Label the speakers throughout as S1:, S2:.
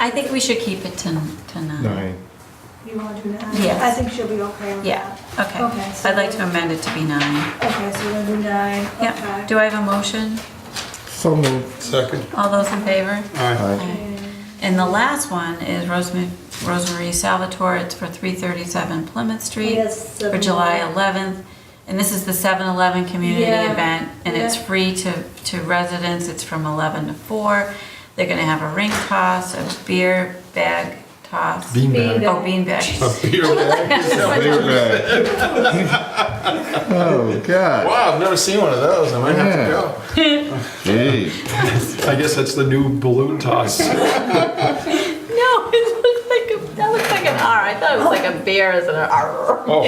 S1: I think we should keep it to, to nine.
S2: Nine.
S3: You want to do nine?
S1: Yes.
S3: I think she'll be okay with
S1: Yeah,
S3: that.
S1: okay.
S3: Okay, so-
S1: I'd like to amend it to be nine.
S3: Okay, so we'll do nine,
S1: Yeah.
S3: okay.
S1: Do I have a motion?
S2: So moved.
S4: Second.
S1: All those in favor?
S4: Aye.
S3: Oh,
S2: Aye.
S1: And the last one is Rosemary, Rosemary Salvatore, it's for 337 Plymouth
S3: We
S1: Street
S3: have seven
S1: for July
S3: more.
S1: 11th. And this is the 7/11 community
S3: Yeah,
S1: event, and it's
S3: yeah.
S1: free to, to residents, it's from 11 to 4. They're gonna have a ring toss, a beer bag toss.
S2: Bean
S3: Bean
S2: bag.
S3: bag.
S1: Oh, bean bags.
S4: A beer bag.
S2: Bean bag. Oh, God.
S4: Wow, I've never seen one of those. I might
S2: Yeah.
S4: have to
S2: Gee.
S4: go. I guess that's the new balloon toss.
S1: No, it looked like, a- that looked like an R. I thought it was like a bear as an R.
S4: Oh,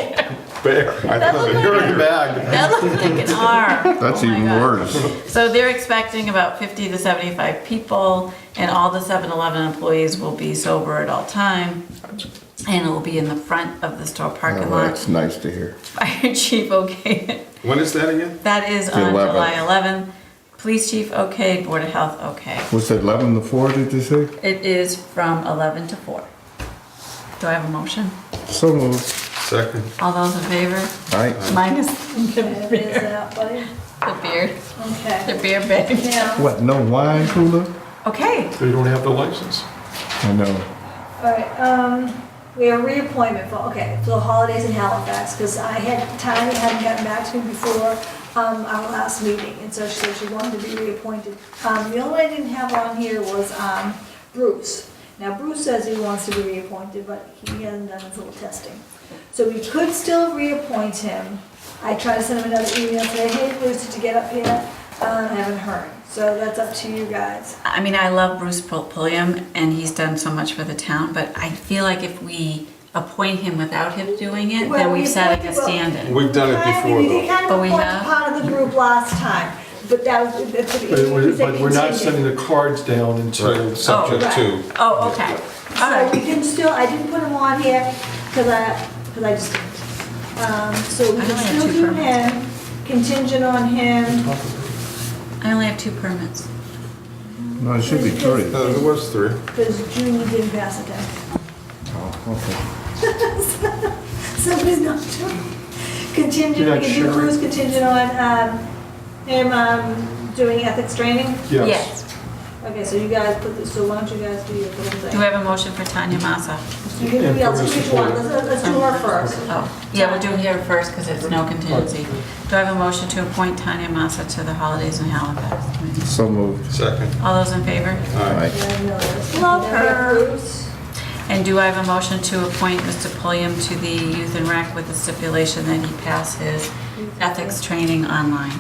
S4: bear. I thought the beer bag.
S1: That looked like an R.
S2: That's
S1: Oh my
S2: even
S1: God.
S2: worse.
S1: So they're expecting about 50 to 75 people, and all the 7-Eleven employees will be sober at all time. And it will be in the front of the store
S2: Oh,
S1: parking lot.
S2: That's nice to hear.
S1: Fire Chief Okay.
S4: When is that again?
S1: That is on
S2: 11th.
S1: July 11th. Police Chief Okay, Board of Health Okay.
S2: Was it 11 to 4, did you say?
S1: It is from 11 to 4. Do I have a motion?
S2: So moved.
S4: Second.
S1: All those in favor?
S2: Aye.
S1: Minus
S3: Okay, there's that, buddy.
S1: the beer, the
S3: Okay.
S1: beer bag.
S3: Now,
S2: What, no wine cooler?
S1: Okay,
S4: They don't have the license.
S2: I know.
S3: all right, um, we have reappointment for, okay, for the holidays in Halifax, because I had, Tanya hadn't gotten back to me before, um, our last meeting, and so she said she wanted to be reappointed. Um, the only one I didn't have on here was, um, Bruce. Now Bruce says he wants to be reappointed, but he hasn't done his little testing. So we could still reappoint him. I tried to send him another email, say, hey, Bruce, did you get up here? Uh, I haven't heard, so that's up to you guys.
S1: I mean, I love Bruce Pul- Pulliam and he's done so much for the town, but I feel like if we appoint him without him doing it,
S3: Well,
S1: then
S3: we
S1: we've set like a
S3: appointed, well-
S1: stand-in.
S4: We've done it
S3: Kind of-
S4: before,
S3: we did
S4: though.
S3: kind of
S1: But we
S3: appoint
S1: have-
S3: part of the group last time, but that was, that's.
S5: But we're, but we're not sending the cards down until,
S4: Right, subject to.
S1: Oh, okay, all
S3: So we
S1: right.
S3: can still, I didn't put him on here, because I, because I just, um, so we
S1: I only
S3: can
S1: have
S3: still
S1: two
S3: do
S1: permits.
S3: him, contingent on him.
S1: I only have two permits.
S2: No, it should be three.
S4: No, there Uh, was three.
S3: Because Junior didn't pass it down.
S2: Oh,
S3: So he's not doing, contingent,
S5: You're
S3: we
S5: not
S3: can do
S5: sure.
S3: Bruce contingent on, um, him, um, doing ethics training.
S5: yes.
S3: Okay, so you guys put, this- so why don't you guys do your little
S1: Do
S3: thing?
S1: I have a motion for Tanya Massa?
S3: You can,
S5: Yeah,
S3: yeah, let's
S5: Bruce
S3: do each
S5: is
S3: one,
S5: one.
S3: let's, let's do
S1: Um,
S3: her first.
S1: Oh, yeah, we'll do here first because it's no contingency. Do I have a motion to appoint Tanya Massa to the Holidays in Halifax? Committee?
S2: So moved.
S4: Second.
S1: All those in favor?
S2: Aye.
S3: Love her.
S1: And do I have a motion to appoint Mr. Pulliam to the Youth and Rec with the stipulation that he pass his ethics training online?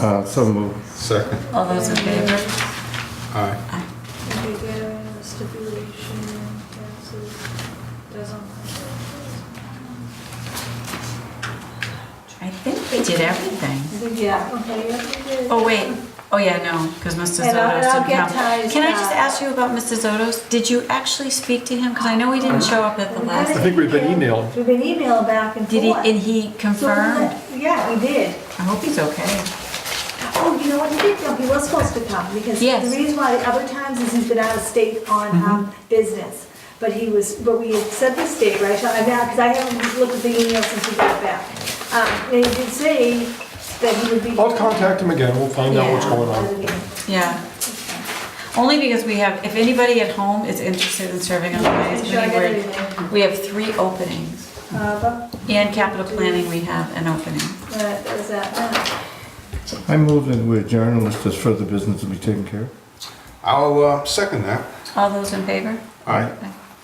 S2: Uh, so moved.
S4: Second.
S1: All those in favor?
S4: Aye.
S3: Okay, there, stipulation, passes, doesn't.
S1: I think we did everything.
S3: I think, Yeah, okay, yeah, we did.
S1: Oh, wait, oh yeah, no, because Mr.
S3: And I'll-
S1: Zotos
S3: and I'll
S1: didn't
S3: get
S1: come.
S3: ties
S1: Can I just
S3: now.
S1: ask you about Mr. Zotos? Did you actually speak to him? Because I know he didn't show up at the last,
S5: I think we've been emailed.
S3: We've been emailed back and
S1: did
S3: forth.
S1: he, and he
S3: So we
S1: confirmed?
S3: let- Yeah, we did.
S1: I hope he's okay.
S3: Oh, you know what, he did come, he was supposed to come, because
S1: Yes. Mm-hmm.
S3: the reason why other times is he's been out of state on um, business. But he was, but we had set this date, right, Sean? because I haven't looked at the email since we got back. Um, And he did say that he would be.
S5: I'll contact him again, we'll find out what's
S1: Yeah.
S5: going on.
S1: Yeah. Only because we have, if anybody at home is interested in serving on the finance
S3: Should I
S1: committee,
S3: get
S1: we're-
S3: everything?
S1: we have three openings.
S3: Uh, but,
S1: And capital planning, we have an opening.
S3: uh, there's that, uh,
S2: I moved that we adjourn unless there's further business to be taken care of.
S4: I'll uh, second that.
S1: All those in favor?
S4: Aye.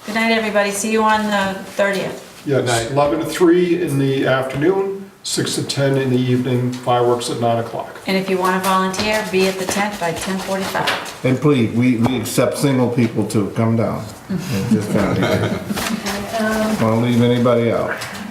S1: Good night, everybody. See you on the 30th.
S5: Yes, 11 to 3 in the afternoon, 6 to 10 in the evening, fireworks at 9 o'clock.
S1: And if you want to volunteer, be at the tent by 10:45.
S2: And please, we, we accept single people too. Come down. Just down here.
S3: um,
S2: Don't leave anybody out.